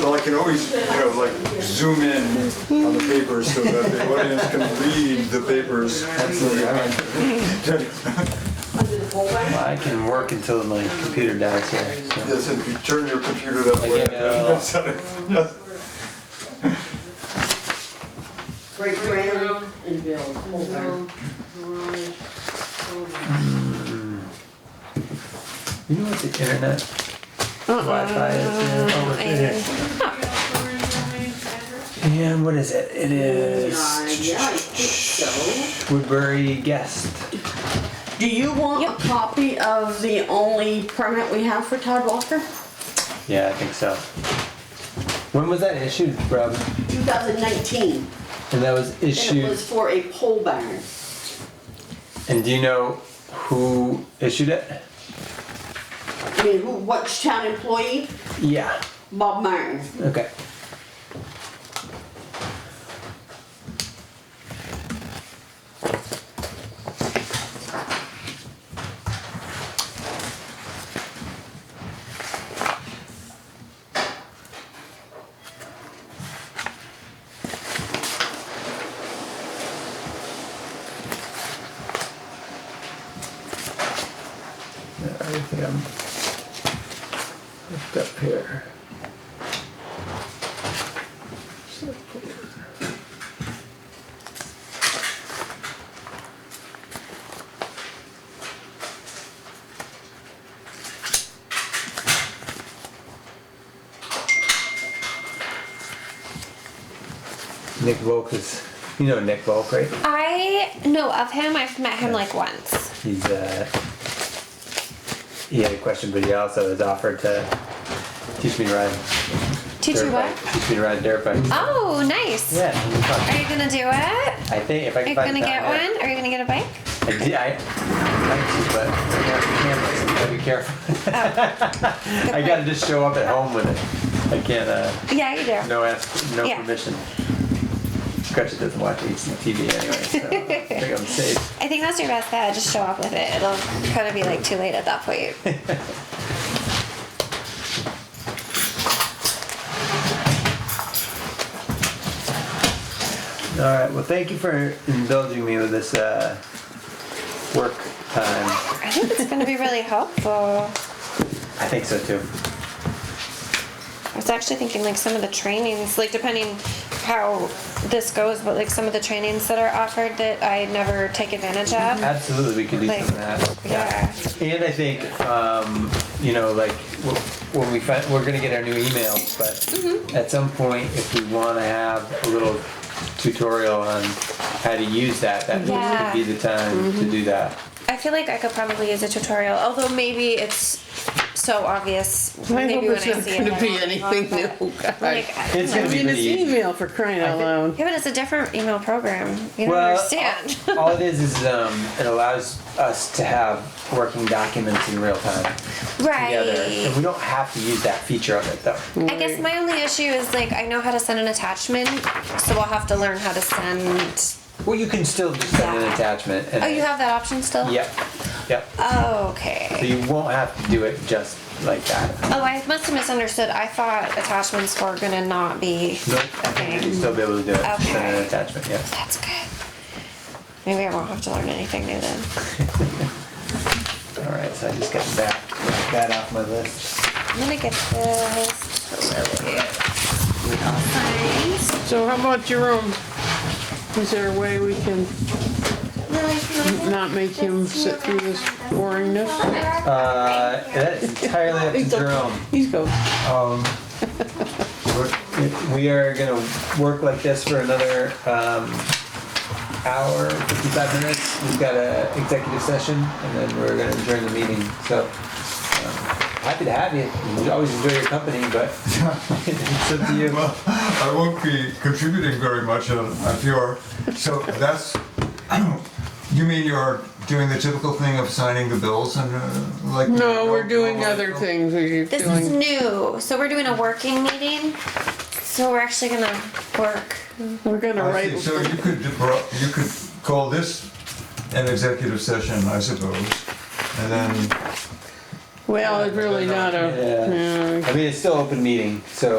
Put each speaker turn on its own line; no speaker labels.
Well, I can always, you know, like zoom in on the papers so that the audience can read the papers.
Well, I can work until my computer dies here. So.
Yes, if you turn your computer that way.
I know.
Yes.
Break ground and build. Hold on.
You know what the internet Wi-Fi is? Oh, it's right here. And what is it? It
Uh,
is
yeah, I think
Woodbury Guest.
so. Do you want a copy of the only permit we have for Todd Walker?
Yeah, I think so. When was that issued, Rob?
2019,
And that was
and it
issued.
was for a pole barn.
And do you know who issued it?
I mean, who, which town employee?
Yeah.
Bob Martin.
Okay. Yeah, I think I'm hooked up here. Nick Volk is, you know Nick Volk, right?
I know of him. I've met him like once.
He's uh, he had a question, but he also has offered to teach me to ride.
Teach you
dirt
what?
bike- Teach me to ride dirt bike.
Oh, nice.
Yeah, it'll be fun.
Are you gonna do it?
I think if I
Are
can
you
find
gonna
the
get
time, yeah.
one? Are you gonna get a bike?
I did. I, I like to, but I got the camera, so you gotta be careful.
Oh.
I gotta just show up at home with it. I can't. Uh,
Yeah, you do.
no ask. No
Yeah.
permission. Gretchen doesn't watch HGTV anyway, so I think I'm safe.
I think that's your best bet. Just show up with it. It'll kind of be like too late at that point.
All right. Well, thank you for indulging me with this uh, work time.
I think it's gonna be really helpful.
I think so too.
I was actually thinking like some of the trainings, like depending how this goes, but like some of the trainings that are offered that I never take advantage of.
Absolutely, we can do some of that.
Yeah.
And I think, um, you know, like w- when we find, we're gonna get our new emails,
Mm-hmm.
but at some point, if we wanna have a little tutorial on how to use that, that
Yeah. Mm-hmm.
would be the time to do that.
I feel like I could probably use a tutorial, although maybe it's so obvious.
I
maybe
hope
when
it's
I
not
see it,
gonna
I
be
won't,
anything
but,
new, God.
Like, I-
It's gonna
I
be
mean,
pretty
it's
easy.
email for crying out loud.
yeah, but it's a different email program. You don't
Well,
understand.
all- all it is is um, it allows us to have working documents in real time together,
right.
and we don't have to use that feature of it though.
I guess my only issue is like I know how to send an attachment, so I'll have to learn how to send.
Well, you can still just send an
Yeah.
attachment. And
Oh, you have that option still?
Yep. Yep.
Oh,
So
okay.
you won't have to do it just like that.
Oh, I must have misunderstood. I thought attachments were gonna not be
Nope.
a thing.
You'll still be able to do it. Send an
Okay.
attachment, yeah.
That's good. Maybe I won't have to learn anything new then.
All right, so I just got that, got that off my list.
I'm gonna get this to Lily. We all signed.
So how about your own? Is there a way we can
Lily, can I-
not make him sit through this boringness?
Uh, that is entirely up to
He's
Jerome.
He's go,
Um, we're- we are gonna work like this for another, um, hour, fifty-five minutes. We've got a executive session and then we're gonna adjourn the meeting, so. um, Happy to have you. We Always enjoy your company, but it's up to you.
Well, I won't be contributing very much on, on PR. So that's, you mean you're doing the typical thing of signing the bills and uh, like?
no, we're doing
no,
other
no.
things, are you
This is
doing?
new, so we're doing a working meeting. So we're actually gonna work.
We're gonna
I see.
write,
So you could, debro- you could call this an executive session, I suppose. And then
well, it's really not a,
Yeah.
yeah,
I mean, it's still open meeting, so